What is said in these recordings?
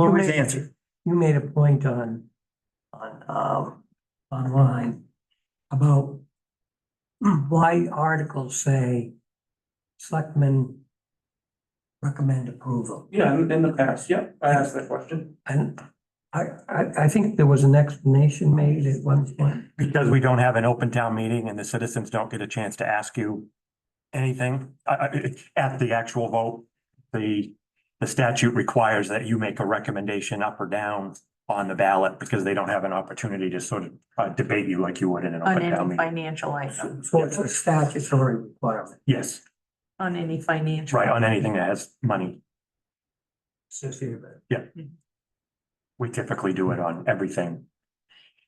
What You was made- answered? You made a point on, on, um, online about why articles say selectmen recommend approval. Yeah, in, in the past, yeah, I asked that question. And I, I, I think there was an explanation made at one point. Because we don't have an open town meeting and the citizens don't get a chance to ask you anything, I, I, it- at the actual vote. The, the statute requires that you make a recommendation up or down on the ballot because they don't have an opportunity to sort of uh, debate you like you would in an On open town any meeting. financial item, So it's a statutory requirement. Yes, on any financial. right, on anything that has money. associated with it. We typically do it on everything.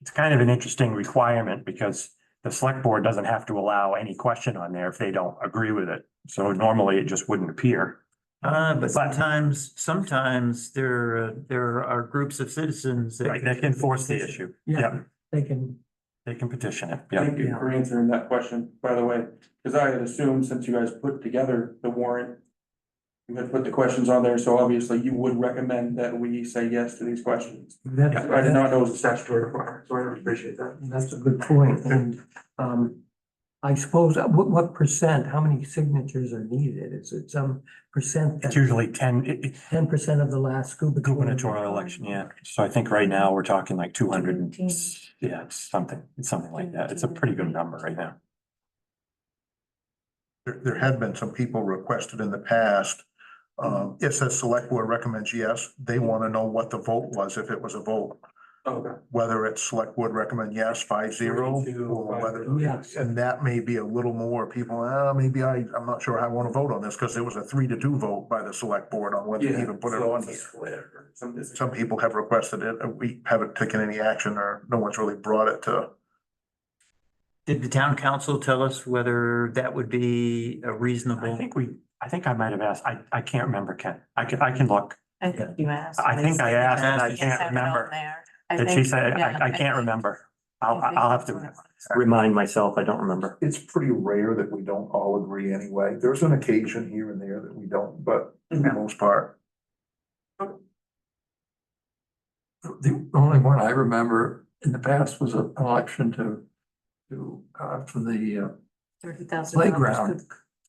It's kind of an interesting requirement because the select board doesn't have to allow any question on there if they don't agree with it. So normally it just wouldn't appear. Uh, but But- sometimes, sometimes there, uh, there are groups of citizens that. Right, they can force the issue. Yeah, They can, they can petition it. Yeah. Thank you for answering that question, by the way, because I had assumed since you guys put together the warrant. You had put the questions on there, so obviously you would recommend that we say yes to these questions. that's, I did not know it was a statutory requirement, so I appreciate that. that's a good point. And, um, I suppose, uh, what, what percent, how many signatures are needed? Is it some percent? It's usually ten, it, it- Ten percent of the last scuba. gubernatorial election, yeah. So I think right now we're talking like two hundred and, Seventeen. yeah, it's something, it's something like that. It's a pretty good number right now. There, there have been some people requested in the past. Um, if the select board recommends yes, they want to know what the vote was, if it was a vote, Oh, Okay. whether it's select board recommend yes, five zero, or whether. Yes. And that may be a little more people, ah, maybe I, I'm not sure I want to vote on this because there was a three to two vote by the select board on whether to even put it on here. Some. Some people have requested it, and we haven't taken any action or no one's really brought it to. Did the town council tell us whether that would be a I reasonable? think we, I think I might have asked, I, I can't remember, Ken. I can, I can look. I think you asked. I think I asked and I Yes, can't remember. I Did she think, say, yeah, I, I think- can't remember. I I'll, think I'll have that's what to it was. remind myself. I don't remember. It's pretty rare that we don't all agree anyway. There's an occasion here and there that we don't, but for the most part. The only one I remember in the past was an election to, to, uh, for the, uh, Thirty thousand. dollars Playground. to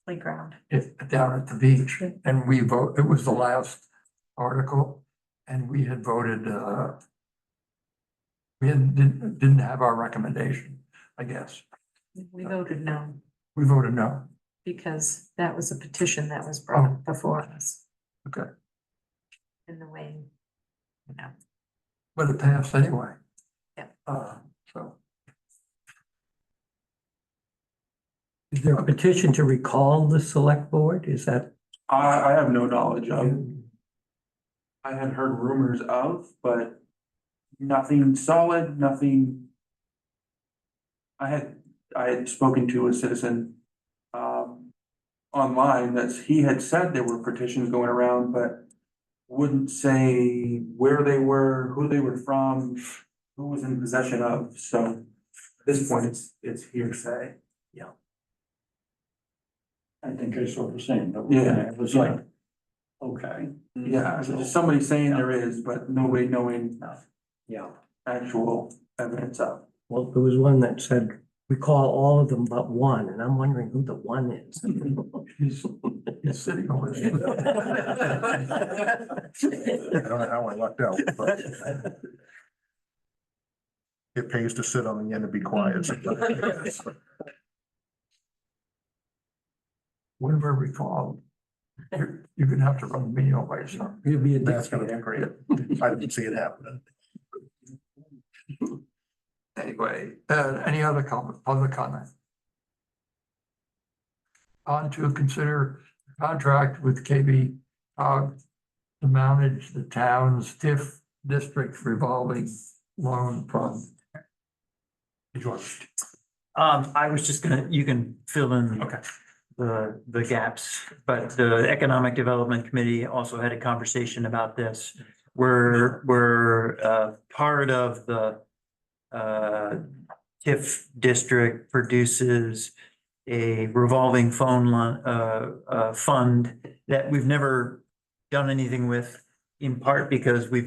Playground. it, down at the beach. And we vote, it was the last article and we had voted, uh, we had, didn't, didn't have our recommendation, I guess. Oh. We voted no, We voted no. because that was a petition that Oh. was brought up before us. Okay. In the way, you know, But it passed anyway. Yeah. Uh, so. Is there a petition to recall the select board? Is that? I, I have no knowledge of. I had heard rumors of, but nothing solid, nothing. I had, I had spoken to a citizen, um, online that's, he had said there were petitions going around, but wouldn't say where they were, who they were from, who was in possession of, so at this point, it's, it's hearsay. Yeah. I think I saw the same, but Yeah. it was like, okay. Yeah, so just somebody saying there is, but nobody knowing Yeah. actual evidence of. Well, there was one that said, recall all of them but one, and I'm wondering who the one is. He's, he's sitting over there. I don't know how I lucked out, but. It pays to sit on the end and be quiet. Whenever recalled, you're, you're gonna have to run a meal by yourself. You'll be a That's gonna be great. I didn't see it happening. Anyway, uh, any other comment, public comment? On to consider contract with KB, uh, to manage the town's TIF district revolving loan fund. Um, I was just gonna, you can fill in. Okay. The, the gaps, but the Economic Development Committee also had a conversation about this. We're, we're, uh, part of the, uh, TIF district produces a revolving phone line, uh, uh, fund that we've never done anything with, in part because we've